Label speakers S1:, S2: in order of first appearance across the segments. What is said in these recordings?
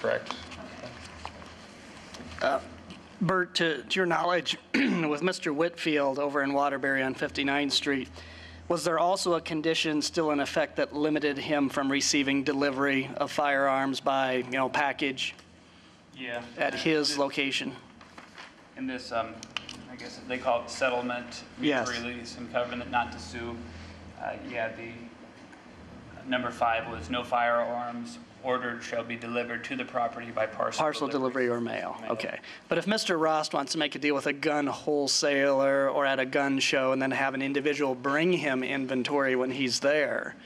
S1: correct.
S2: Bert, to, to your knowledge, with Mr. Whitfield over in Waterbury on 59th Street, was there also a condition still in effect that limited him from receiving delivery of firearms by, you know, package
S3: Yeah.
S2: at his location?
S3: In this, um, I guess they call it settlement,
S2: Yes.
S3: release, and covenant not to sue. Uh, yeah, the number five was no firearms ordered shall be delivered to the property by parcel.
S2: Parcel delivery or mail, okay. But if Mr. Rost wants to make a deal with a gun wholesaler or at a gun show and then have an individual bring him inventory when he's there,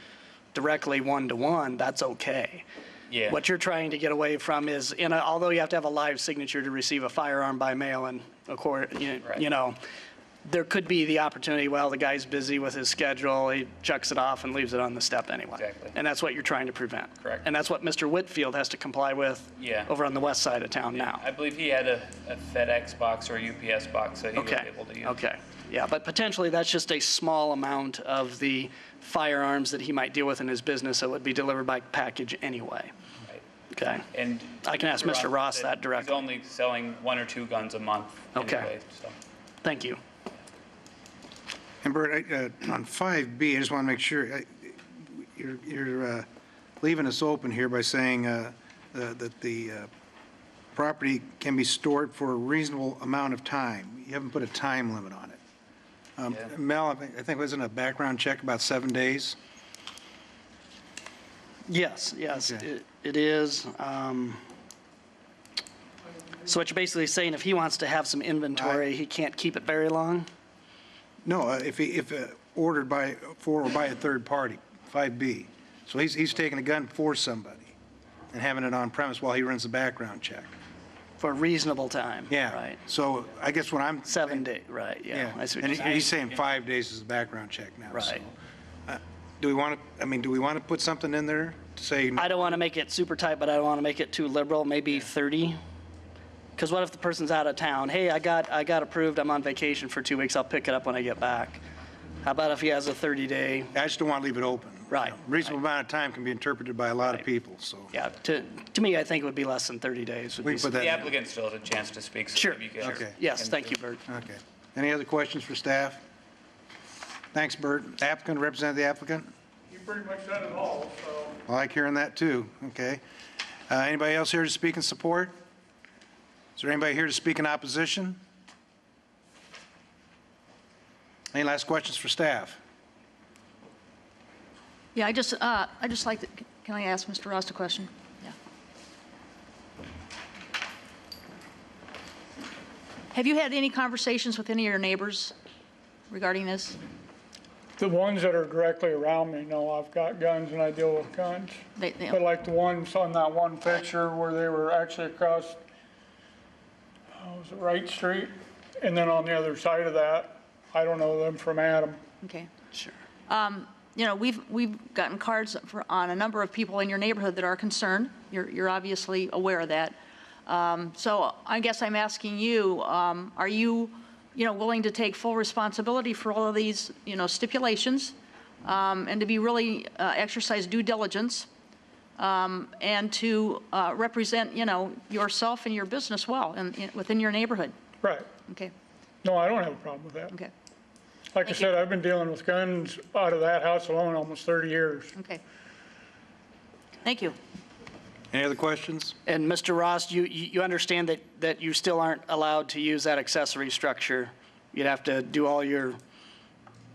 S2: directly one-to-one, that's okay.
S3: Yeah.
S2: What you're trying to get away from is, and although you have to have a live signature to receive a firearm by mail and of course, you
S3: Right.
S2: you know, there could be the opportunity, well, the guy's busy with his schedule, he chucks it off and leaves it on the step anyway.
S3: Exactly.
S2: And that's what you're trying to prevent.
S3: Correct.
S2: And that's what Mr. Whitfield has to comply with.
S3: Yeah.
S2: Over on the west side of town now.
S3: I believe he had a a FedEx box or a UPS box that he was
S2: Okay,
S3: able to use.
S2: okay. Yeah, but potentially that's just a small amount of the firearms that he might deal with in his business that would be delivered by package anyway.
S3: Right.
S2: Okay?
S3: And.
S2: I can ask Mr. Ross
S3: said
S2: that directly.
S3: He's only selling one or two guns a month
S2: Okay.
S3: anyway, so.
S2: Thank you.
S4: And Bert, I, uh, on 5B, I just want to make sure, I- you're- you're uh, leaving us open here by saying uh, uh, that the uh, property can be stored for a reasonable amount of time. You haven't put a time limit on it. Um,
S3: Yeah.
S4: Mel, I think- I think wasn't a background check about seven days?
S2: Yes, yes,
S4: Okay.
S2: it it is. um, So what you're basically saying, if he wants to have some inventory, he can't keep it very long?
S4: No, uh, if, he- if uh, ordered by, for or by a third party, 5B. So he's, he's taking a gun for somebody and having it on premise while he runs the background check.
S2: For a reasonable time?
S4: Yeah.
S2: Right?
S4: So I guess what I'm
S2: Seven day, right, yeah. I see what
S4: And
S2: you're
S4: he- he's
S2: saying.
S4: saying five days is the background check now. so,
S2: Right.
S4: uh, Do we want to, I mean, do we want to put something in there to say,
S2: I don't want to make it super tight, but I don't want to make it too liberal, maybe 30? Because what if the person's out of town? Hey, I got, I got approved, I'm on vacation for two weeks, I'll pick it up when I get back. How about if he has a 30-day?
S4: I just don't want to leave it open?
S2: Right,
S4: Reasonable amount of time can be interpreted by a lot of people, so.
S2: Yeah, to, to me, I think it would be less than 30 days. would
S4: We
S2: be
S4: can put that
S3: The
S4: in.
S3: applicant still has a chance to speak. so
S2: Sure,
S3: maybe you guys
S4: Okay.
S2: Yes,
S3: can-
S2: thank you, Bert.
S4: Okay. Any other questions for staff? Thanks, Bert. Applicant, represent the applicant?
S5: You pretty much said it all, so.
S4: I like hearing that, too. Okay. Uh, Anybody else here to speak in support? Is there anybody here to speak in opposition? Any last questions for staff?
S6: Yeah, I just, uh, I just like, to- can I ask Mr. Ross a question? Yeah. Have you had any conversations with any of your neighbors regarding this?
S5: The ones that are directly around me know I've got guns and I deal with guns.
S6: They- they-
S5: But like the ones on that one picture where they were actually across, uh, was it Wright Street? And then on the other side of that, I don't know them from Adam.
S6: Okay. Um,
S2: Sure.
S6: you know, we've, we've gotten cards for, on a number of people in your neighborhood that are concerned. You're, you're obviously aware of that. Um, so I guess I'm asking you, um, are you, you know, willing to take full responsibility for all of these, you know, stipulations? Um, and to be really, uh, exercise due diligence? Um, and to, uh, represent, you know, yourself and your business well and, in within your neighborhood?
S5: Right.
S6: Okay,
S5: No, I don't have a problem with that.
S6: okay,
S5: Like I
S6: Thank you.
S5: said, I've been dealing with guns out of that house alone almost 30 years.
S6: okay. Thank you.
S4: Any other questions?
S2: And Mr. Ross, you, you you understand that, that you still aren't allowed to use that accessory structure? You'd have to do all your,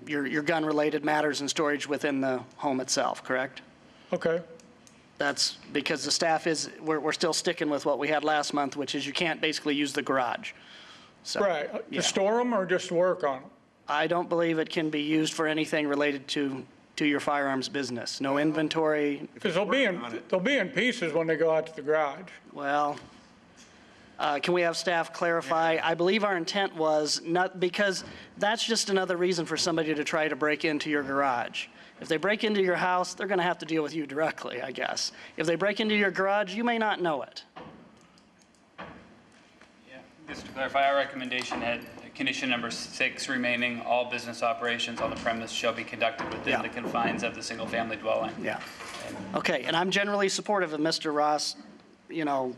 S2: your, your gun-related matters and storage within the home itself, correct?
S5: Okay,
S2: That's because the staff is, we're, we're still sticking with what we had last month, which is you can't basically use the garage. So-
S5: right.
S2: Yeah.
S5: To store them or just work on them?
S2: I don't believe it can be used for anything related to, to your firearms business. No inventory,
S5: Because they'll be in, they'll be in pieces when they go out to the garage.
S2: Well, uh, can we have staff clarify? I believe our intent was not, because that's just another reason for somebody to try to break into your garage. If they break into your house, they're going to have to deal with you directly, I guess. If they break into your garage, you may not know it.
S3: Yeah, Just to clarify, our recommendation had condition number six remaining, all business operations on the premise shall be conducted within
S2: Yeah.
S3: the confines of the single-family dwelling.
S2: Yeah. Okay, and I'm generally supportive of Mr. Ross, you know,